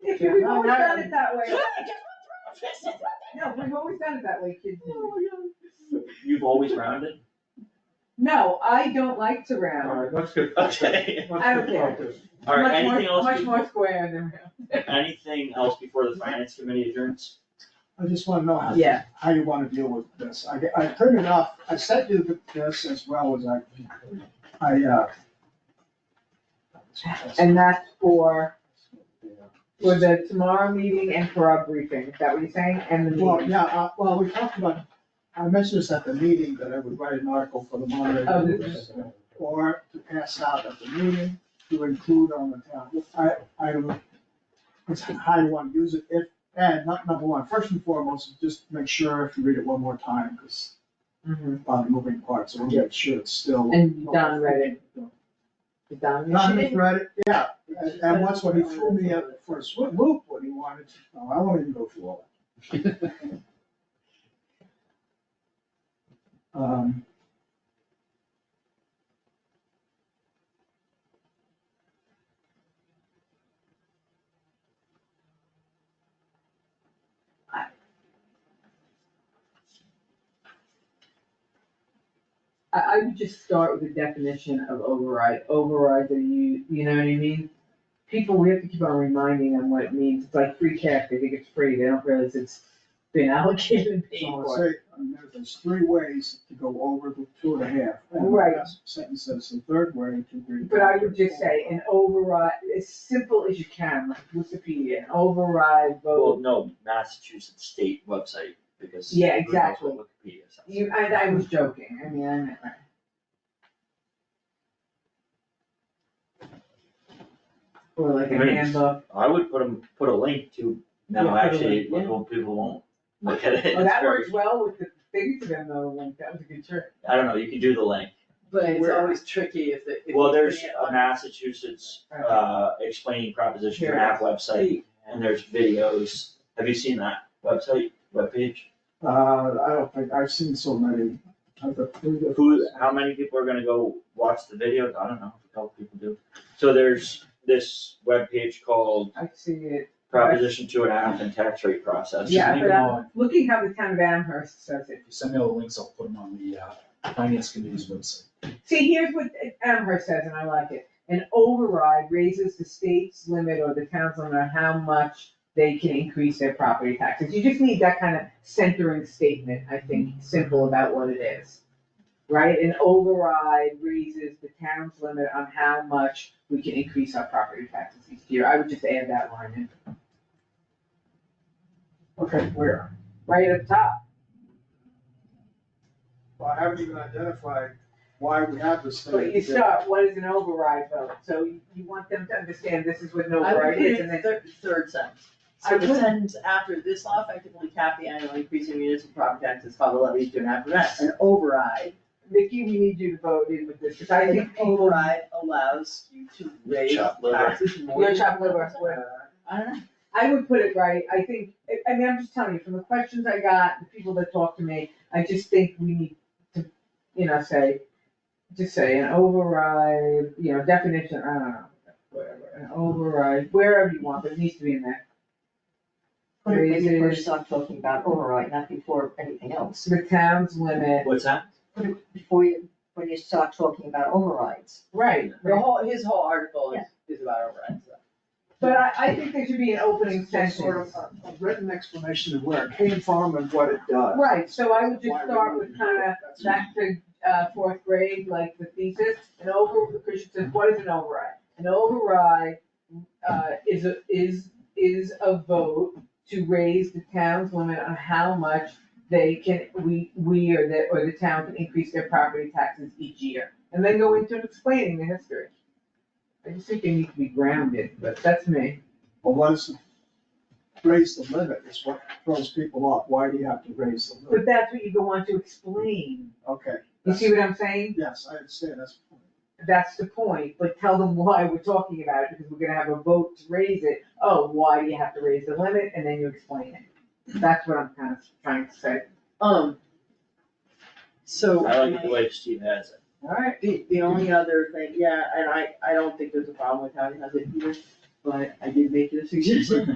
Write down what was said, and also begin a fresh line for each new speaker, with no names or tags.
Yeah,
We've
no,
always
no.
done it that way.
Oh
No, we've always done it that way, kids.
my God.
You've always rounded?
No, I don't like to round.
Alright, let's get.
Okay.
let's get
I don't care.
focused.
All right,
Much more-
anything else?
Much
before-
more square than round.
Anything else before the finance committee adjourns?
I just wanna know how,
Yeah.
how you wanna deal with this. I, I printed off, I sent you the- this as well as I, I, uh.
And that's for, for the tomorrow meeting and for our briefing, is that what you're saying? And the
Well,
meeting?
yeah, uh, well, we talked about, I mentioned this at the meeting, that I would write an article for the
Oh,
moderator.
this-
Or to pass out at the meeting, to include on the town, I, I, don't- it's how you wanna use it, if, and not number one, first and foremost, just make sure if you read it one more time, cause
Mhm.
on moving parts, so we'll make sure it's still.
And Don read it. Don, you
Don
should-
read it, yeah, and- and once when he threw me up for a swim loop, when he wanted to, oh, I won't even go through all that. Um,
I, I would just start with the definition of override. Overrides are you, you know what I mean? People, we have to keep on reminding them what it means. It's like free cash, they think it's free, they don't realize it's been allocated and paid
So I
for.
say, I mean, there- there's three ways to go over the two and a half. And the
Right.
last Sentence says the third way to read.
But I would just say an override, as simple as you can, like Wikipedia, an override vote.
Well, no, Massachusetts state website, because.
Yeah,
who knows what
exactly.
Wikipedia says.
You, I, I was joking, I mean, I meant that. Or like a
Right.
handbook,
I would put a, put a link to, no,
Yeah, put a
actually,
link, yeah.
people people won't look at it.
oh, that
It's
works
very-
well with the things then though, like, that was a good trick.
I don't know, you can do the link.
But it's
Where-
always tricky if it. if
Well,
you
there's
put it
a
on-
Massachusetts,
Right.
uh, explaining proposition
Here.
map website, and there's videos. Have you seen that website, webpage?
Uh, I don't think, I've seen so many. I've got three different-
Who, how many people are gonna go watch the videos? I don't know, a couple people do. So there's this webpage called
I see it,
Proposition Two and a Half and Tax Rate Process.
yeah,
leave
but
them
I'm looking how the town of Amherst says it.
If you send me all the links, I'll put them on the uh, finance committee's website.
See, here's what Amherst says, and I like it. An override raises the state's limit or the town's limit on how much they can increase their property taxes. You just need that kind of centering statement, I think, simple about what it is. Right? An override raises the town's limit on how much we can increase our property taxes each year. I would just add that line in,
Okay, where?
right up top.
Well, I haven't even identified why we have this thing.
But you start, what is an override vote? So you you want them to understand this is what an
I would
override
put
is,
it
and then
third, third sentence.
I
So the
would.
sentence after this law effectively capped the annual increase in municipal property taxes by the levy two and a half percent. An override.
Mickey, we need you to vote in with this, because I
An
think people,
override allows you to raise
Chop liver.
taxes more.
your chop liver, whatever.
I don't know.
I would put it right, I think, I- I mean, I'm just telling you, from the questions I got, the people that talked to me, I just think we need to, you know, say, just say an override, you know, definition, I don't know, whatever, an override, wherever you want, but it needs to be in there.
Put it when you
Raises-
first start talking about override, not before anything else.
The town's limit,
What's that?
Put it before you, when you start talking about overrides.
right,
The whole, his whole article is, is about overrides, so.
but I, I think there should be an opening
Just Sort of
sentence.
a a written explanation of where it came from and what it does.
Right, so I would just
Why we
start
do
with
it.
kinda
That's-
back to uh, fourth grade, like the thesis, an over, Christian said, what is an override? An override uh, is a, is, is a vote to raise the town's limit on how much they can, we, we or the, or the town can increase their property taxes each year. And then go into explaining the history. I just think they need to be grounded, but that's me.
Well, what is, raise the limit is what throws people off, why do you have to raise the limit?
But that's what you go on to explain.
Okay.
You see what I'm saying?
Yes, I understand, that's.
That's the point, but tell them why we're talking about it, because we're gonna have a vote to raise it. Oh, why do you have to raise the limit? And then you explain it. That's what I'm kind of trying to say.
Um. So.
I like the way Steve has it.
Alright.
The, the only other thing, yeah, and I, I don't think there's a problem with how he has it either, but I did make it a suggestion.